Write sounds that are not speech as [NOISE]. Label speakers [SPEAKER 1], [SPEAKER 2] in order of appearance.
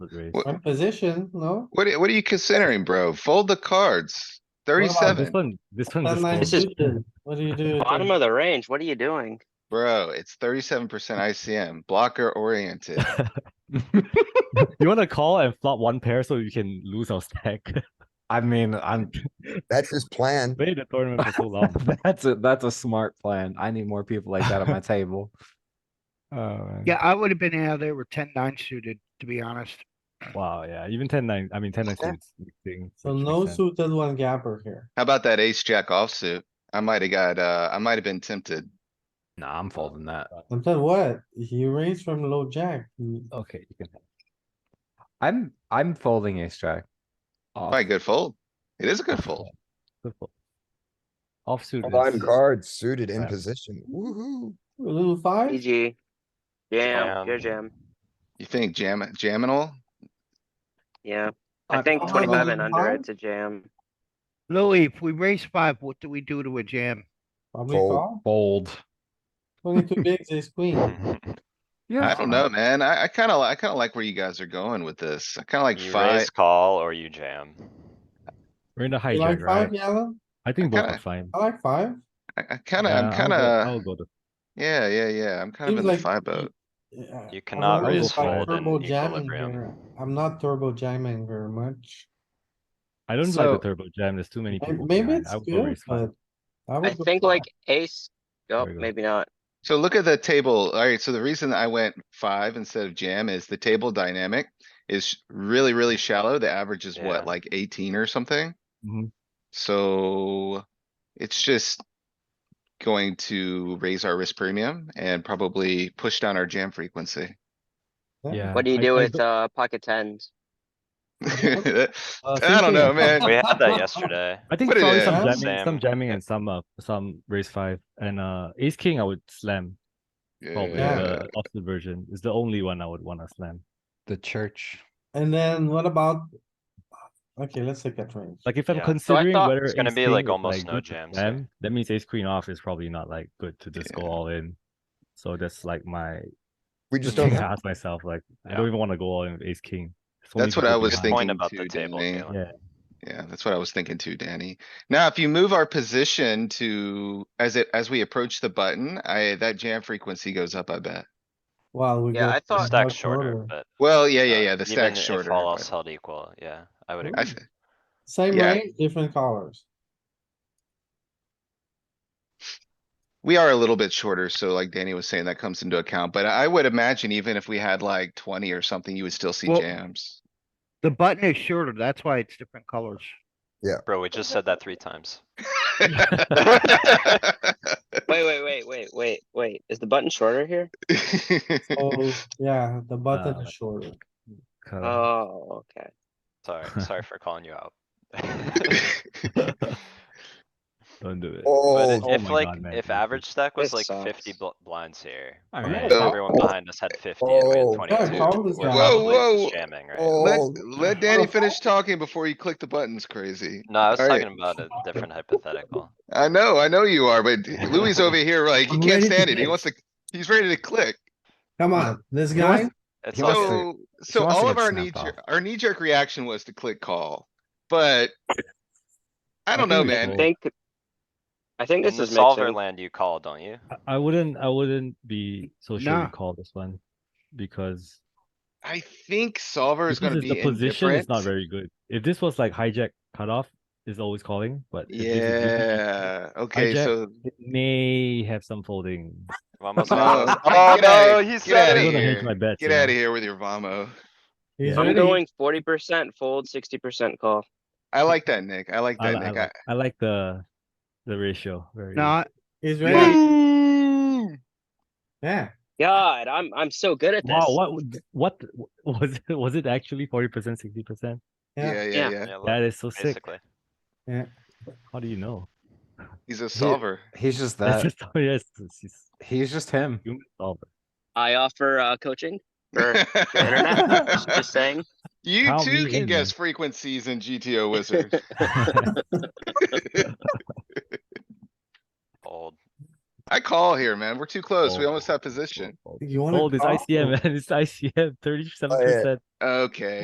[SPEAKER 1] raise.
[SPEAKER 2] What-
[SPEAKER 3] What position, no?
[SPEAKER 2] What, are- what are you considering, bro? Fold the cards. Thirty-seven,
[SPEAKER 1] This one, this one
[SPEAKER 3] Ten
[SPEAKER 1] just
[SPEAKER 3] nine
[SPEAKER 1] folds.
[SPEAKER 4] This is-
[SPEAKER 3] suited. What do you do?
[SPEAKER 4] Bottom of the range, what are you doing?
[SPEAKER 2] bro. It's thirty-seven percent ICM, blocker oriented.
[SPEAKER 1] [LAUGHS]
[SPEAKER 3] [LAUGHS]
[SPEAKER 1] You wanna call and flop one pair so you can lose our stack? [LAUGHS]
[SPEAKER 5] I mean, I'm [LAUGHS]
[SPEAKER 6] That's his plan.
[SPEAKER 1] Made the tournament for so
[SPEAKER 3] [LAUGHS]
[SPEAKER 1] long.
[SPEAKER 5] that's a that's a smart plan. I need more people like [LAUGHS] that at my table. Oh man.
[SPEAKER 7] Yeah, I would have been out of there with ten nine suited, to be honest.
[SPEAKER 1] Wow, yeah, even ten nine, I mean, ten nine.
[SPEAKER 6] Yeah.
[SPEAKER 1] suits mixing,
[SPEAKER 3] So
[SPEAKER 1] which
[SPEAKER 3] no
[SPEAKER 1] makes sense.
[SPEAKER 3] suited one gapper here.
[SPEAKER 2] How about that ace jack offsuit? I might have got, uh, I might have been tempted.
[SPEAKER 5] Nah, I'm folding that.
[SPEAKER 3] I'm telling you what, he raised from low jack. He-
[SPEAKER 1] Okay, you can have.
[SPEAKER 5] I'm I'm folding ace jack. Off.
[SPEAKER 2] Probably a good fold. It is a good fold.
[SPEAKER 1] the fold. Offsuit.
[SPEAKER 6] Blind
[SPEAKER 1] is-
[SPEAKER 6] cards suited in
[SPEAKER 1] Yeah.
[SPEAKER 6] position. Woohoo.
[SPEAKER 3] A little five,
[SPEAKER 4] EG. Jam, your jam,
[SPEAKER 2] You think jam, jaminal?
[SPEAKER 4] yeah. I
[SPEAKER 5] I-
[SPEAKER 4] think
[SPEAKER 3] oh,
[SPEAKER 4] twenty-five and
[SPEAKER 3] you
[SPEAKER 4] under,
[SPEAKER 3] found?
[SPEAKER 4] it's a jam.
[SPEAKER 7] Louis, if we raise five, what do we do to a jam?
[SPEAKER 3] probably
[SPEAKER 6] Fold.
[SPEAKER 3] call,
[SPEAKER 5] Fold.
[SPEAKER 3] twenty-two bigs, ace queen.
[SPEAKER 5] Yeah.
[SPEAKER 2] I don't know, man. I, I kinda, li- I kinda like where you guys are going with this. I kinda like
[SPEAKER 8] You
[SPEAKER 2] five.
[SPEAKER 8] raise call or you jam.
[SPEAKER 1] We're in the
[SPEAKER 3] You like
[SPEAKER 1] hijack,
[SPEAKER 3] five,
[SPEAKER 1] right?
[SPEAKER 3] yellow?
[SPEAKER 1] I think both
[SPEAKER 2] kinda-
[SPEAKER 1] are fine.
[SPEAKER 3] I like five.
[SPEAKER 2] I, I kinda,
[SPEAKER 1] Yeah,
[SPEAKER 2] I'm
[SPEAKER 1] I'll go- I'll
[SPEAKER 2] kinda,
[SPEAKER 1] go the
[SPEAKER 2] yeah, yeah, yeah. I'm kind of
[SPEAKER 3] Seems
[SPEAKER 2] in the
[SPEAKER 3] like
[SPEAKER 2] five
[SPEAKER 3] you-
[SPEAKER 2] boat.
[SPEAKER 3] Yeah,
[SPEAKER 8] You
[SPEAKER 3] I'm
[SPEAKER 8] cannot
[SPEAKER 3] not
[SPEAKER 1] raise
[SPEAKER 3] really
[SPEAKER 1] fold
[SPEAKER 8] in
[SPEAKER 3] turbo jamming
[SPEAKER 8] equilibrium.
[SPEAKER 3] here. I'm not turbo jamming very much.
[SPEAKER 1] I don't
[SPEAKER 5] So-
[SPEAKER 1] like the turbo jam. There's too many
[SPEAKER 3] May-
[SPEAKER 1] people.
[SPEAKER 3] Maybe
[SPEAKER 1] behind.
[SPEAKER 3] it's
[SPEAKER 1] I would go
[SPEAKER 3] good,
[SPEAKER 1] raise five.
[SPEAKER 3] but. would
[SPEAKER 4] I
[SPEAKER 3] go
[SPEAKER 4] think
[SPEAKER 3] five.
[SPEAKER 4] like ace, oh,
[SPEAKER 1] There you go.
[SPEAKER 4] maybe not.
[SPEAKER 2] So look at the table. Alright, so the reason I went five instead of jam is the table dynamic is really, really shallow. The average is
[SPEAKER 8] Yeah.
[SPEAKER 2] what, like eighteen or something?
[SPEAKER 1] Mhm.
[SPEAKER 2] So it's just going to raise our risk premium and probably push down our jam frequency.
[SPEAKER 1] Yeah.
[SPEAKER 4] What do you
[SPEAKER 1] I-
[SPEAKER 4] do
[SPEAKER 1] I
[SPEAKER 4] with,
[SPEAKER 1] don't-
[SPEAKER 4] uh, pocket tens?
[SPEAKER 2] [LAUGHS] I
[SPEAKER 1] uh,
[SPEAKER 2] don't know,
[SPEAKER 1] thinking-
[SPEAKER 3] [LAUGHS]
[SPEAKER 2] man.
[SPEAKER 8] We
[SPEAKER 1] [LAUGHS]
[SPEAKER 8] had that yesterday.
[SPEAKER 1] I think
[SPEAKER 2] Put it
[SPEAKER 1] probably
[SPEAKER 2] in.
[SPEAKER 1] some jamming,
[SPEAKER 8] Same.
[SPEAKER 1] some jamming and some uh, some raise five and uh ace king I would slam probably
[SPEAKER 2] Yeah,
[SPEAKER 1] the opposite version is the only one I would want to slam.
[SPEAKER 5] The church.
[SPEAKER 3] And then what about? Okay, let's take that range.
[SPEAKER 1] Like if I'm
[SPEAKER 8] Yeah. So I
[SPEAKER 1] considering
[SPEAKER 4] thought
[SPEAKER 1] whether
[SPEAKER 4] it's
[SPEAKER 8] gonna
[SPEAKER 1] ace
[SPEAKER 8] be, like,
[SPEAKER 1] king is,
[SPEAKER 8] almost no
[SPEAKER 1] good to
[SPEAKER 8] jams
[SPEAKER 1] slam,
[SPEAKER 8] there.
[SPEAKER 1] that means ace queen off is probably not like good to just go
[SPEAKER 2] Yeah.
[SPEAKER 1] all in. So that's like my
[SPEAKER 6] We
[SPEAKER 1] just [LAUGHS]
[SPEAKER 6] just
[SPEAKER 1] thing
[SPEAKER 6] don't
[SPEAKER 1] to
[SPEAKER 6] have,
[SPEAKER 1] ask myself like I
[SPEAKER 8] Yeah.
[SPEAKER 1] don't even want to go all in with ace king. There's so many
[SPEAKER 2] That's what
[SPEAKER 1] people
[SPEAKER 2] I was
[SPEAKER 1] behind.
[SPEAKER 8] Good
[SPEAKER 2] thinking
[SPEAKER 8] Point about
[SPEAKER 2] too,
[SPEAKER 8] the table,
[SPEAKER 2] Danny.
[SPEAKER 8] Galen.
[SPEAKER 1] Yeah.
[SPEAKER 2] yeah, that's what I was thinking too, Danny. Now, if you move our position to, as it, as we approach the button, I, that jam frequency goes up, I bet.
[SPEAKER 3] Wow, we.
[SPEAKER 4] Yeah,
[SPEAKER 3] go
[SPEAKER 4] I thought-
[SPEAKER 3] much
[SPEAKER 8] Stack's shorter,
[SPEAKER 3] shorter.
[SPEAKER 8] but.
[SPEAKER 2] Well, yeah, yeah,
[SPEAKER 8] uh,
[SPEAKER 2] yeah, the
[SPEAKER 8] even
[SPEAKER 2] stack's
[SPEAKER 8] if
[SPEAKER 2] shorter.
[SPEAKER 8] All
[SPEAKER 2] but
[SPEAKER 8] else held equal, yeah, I would
[SPEAKER 2] I
[SPEAKER 8] agree.
[SPEAKER 2] th-
[SPEAKER 3] Same
[SPEAKER 2] Yeah.
[SPEAKER 3] range, different
[SPEAKER 4] [LAUGHS]
[SPEAKER 3] colors.
[SPEAKER 2] We are a little bit shorter, so like Danny was saying, that comes into account, but I would imagine even if we had like twenty or something, you would still see
[SPEAKER 3] [LAUGHS]
[SPEAKER 7] Well-
[SPEAKER 2] jams.
[SPEAKER 7] The button is shorter, that's why it's different colors.
[SPEAKER 8] Bro, we just said that three times.
[SPEAKER 2] [LAUGHS]
[SPEAKER 8] [LAUGHS]
[SPEAKER 4] Wait, wait, wait, wait, wait, wait, is the button shorter here?
[SPEAKER 3] Oh, yeah, the button
[SPEAKER 1] Uh,
[SPEAKER 3] is shorter.
[SPEAKER 1] Kinda-
[SPEAKER 8] Uh,
[SPEAKER 4] Oh, okay.
[SPEAKER 1] [LAUGHS]
[SPEAKER 8] Sorry, sorry for calling
[SPEAKER 2] [LAUGHS]
[SPEAKER 8] you out. [LAUGHS]
[SPEAKER 1] don't do it.
[SPEAKER 8] But
[SPEAKER 6] oh,
[SPEAKER 8] it-
[SPEAKER 1] Oh
[SPEAKER 8] if
[SPEAKER 1] my
[SPEAKER 8] like,
[SPEAKER 1] God, man,
[SPEAKER 8] if
[SPEAKER 1] this
[SPEAKER 8] average stack was like
[SPEAKER 4] this
[SPEAKER 8] fifty
[SPEAKER 4] sucks.
[SPEAKER 8] bl- blinds here,
[SPEAKER 5] All
[SPEAKER 8] and
[SPEAKER 5] right.
[SPEAKER 2] No.
[SPEAKER 8] everyone behind us had fifty and we
[SPEAKER 6] Oh.
[SPEAKER 8] had
[SPEAKER 3] Yeah,
[SPEAKER 8] twenty-two.
[SPEAKER 3] call this
[SPEAKER 8] we're
[SPEAKER 3] guy.
[SPEAKER 2] Whoa,
[SPEAKER 8] probably just
[SPEAKER 2] Oh. whoa.
[SPEAKER 8] Jamming, right?
[SPEAKER 6] Oh.
[SPEAKER 2] Let, let Danny finish talking before you click the buttons, crazy.
[SPEAKER 8] No, I was
[SPEAKER 2] Alright.
[SPEAKER 8] talking about a different hypothetical.
[SPEAKER 2] I know, I know you are,
[SPEAKER 5] [LAUGHS]
[SPEAKER 2] but Louis over here, like, he
[SPEAKER 3] I'm
[SPEAKER 2] can't
[SPEAKER 3] ready to
[SPEAKER 2] stand it. He
[SPEAKER 3] click.
[SPEAKER 2] wants to, he's ready to click.
[SPEAKER 3] Come on, this
[SPEAKER 5] He wants-
[SPEAKER 3] guy,
[SPEAKER 8] It's
[SPEAKER 5] He wants to-
[SPEAKER 8] also,
[SPEAKER 2] So, so
[SPEAKER 5] wants to
[SPEAKER 2] all of
[SPEAKER 5] get
[SPEAKER 2] our
[SPEAKER 5] snapped
[SPEAKER 2] knee, jer-
[SPEAKER 5] off.
[SPEAKER 2] our knee jerk reaction was to click call, but I don't
[SPEAKER 1] think
[SPEAKER 2] know,
[SPEAKER 1] we
[SPEAKER 2] man.
[SPEAKER 4] I
[SPEAKER 1] Well,
[SPEAKER 4] think, I think
[SPEAKER 8] in
[SPEAKER 4] this
[SPEAKER 8] the
[SPEAKER 4] is
[SPEAKER 8] solver
[SPEAKER 4] mixing.
[SPEAKER 8] land, you call, don't you?
[SPEAKER 1] I- I wouldn't I wouldn't be so sure
[SPEAKER 7] Nah.
[SPEAKER 1] to call this one because
[SPEAKER 2] I think solver is
[SPEAKER 1] because
[SPEAKER 2] gonna
[SPEAKER 1] it's-
[SPEAKER 2] be
[SPEAKER 1] the position is
[SPEAKER 2] indifferent.
[SPEAKER 1] not very good. If this was like hijack cutoff is always calling, but if this is GG,
[SPEAKER 2] Yeah, okay,
[SPEAKER 1] Hijack.
[SPEAKER 2] so
[SPEAKER 1] it may have some folding.
[SPEAKER 8] Vamos,
[SPEAKER 2] No.
[SPEAKER 8] vamos.
[SPEAKER 2] Get
[SPEAKER 8] Oh,
[SPEAKER 2] outta-
[SPEAKER 8] no, he
[SPEAKER 2] get
[SPEAKER 8] said
[SPEAKER 2] outta
[SPEAKER 1] I'm
[SPEAKER 8] it.
[SPEAKER 1] gonna hedge
[SPEAKER 2] here.
[SPEAKER 1] my bets,
[SPEAKER 2] get
[SPEAKER 1] you know.
[SPEAKER 2] out of here with your vamo.
[SPEAKER 3] he's
[SPEAKER 4] I'm
[SPEAKER 3] ready.
[SPEAKER 4] going forty percent fold, sixty percent call.
[SPEAKER 2] I like that, Nick. I like
[SPEAKER 1] I,
[SPEAKER 2] that,
[SPEAKER 1] li- I
[SPEAKER 2] Nick. I-
[SPEAKER 1] like, I like the the ratio very
[SPEAKER 7] Not,
[SPEAKER 3] He's ready.
[SPEAKER 2] Boom.
[SPEAKER 3] Yeah,
[SPEAKER 4] God, I'm, I'm so good at this.
[SPEAKER 1] Wow, what would- what was it was it actually 40% 60%?
[SPEAKER 2] Yeah,
[SPEAKER 3] Yeah.
[SPEAKER 2] yeah,
[SPEAKER 4] Yeah.
[SPEAKER 2] [LAUGHS] yeah.
[SPEAKER 8] Yeah, look,
[SPEAKER 1] That is so sick.
[SPEAKER 8] Basically.
[SPEAKER 1] How do you know?
[SPEAKER 2] He's a solver.
[SPEAKER 5] He's just
[SPEAKER 1] That's
[SPEAKER 5] that.
[SPEAKER 1] just oh, yes, it's just
[SPEAKER 5] He's just him.
[SPEAKER 1] human
[SPEAKER 2] [LAUGHS]
[SPEAKER 1] solver.
[SPEAKER 4] I offer, uh, [LAUGHS] coaching for the internet,
[SPEAKER 2] [LAUGHS]
[SPEAKER 4] just saying.
[SPEAKER 2] You
[SPEAKER 1] Count
[SPEAKER 2] too
[SPEAKER 1] me
[SPEAKER 2] can
[SPEAKER 1] in,
[SPEAKER 2] guess frequencies in GTO Wizard.
[SPEAKER 8] Old.
[SPEAKER 2] I call here, man. We're too close. We
[SPEAKER 1] Oh.
[SPEAKER 2] almost have position.
[SPEAKER 3] you wanna.
[SPEAKER 1] Oh, this
[SPEAKER 3] call?
[SPEAKER 1] ICM man, this ICM 37%.
[SPEAKER 2] Okay.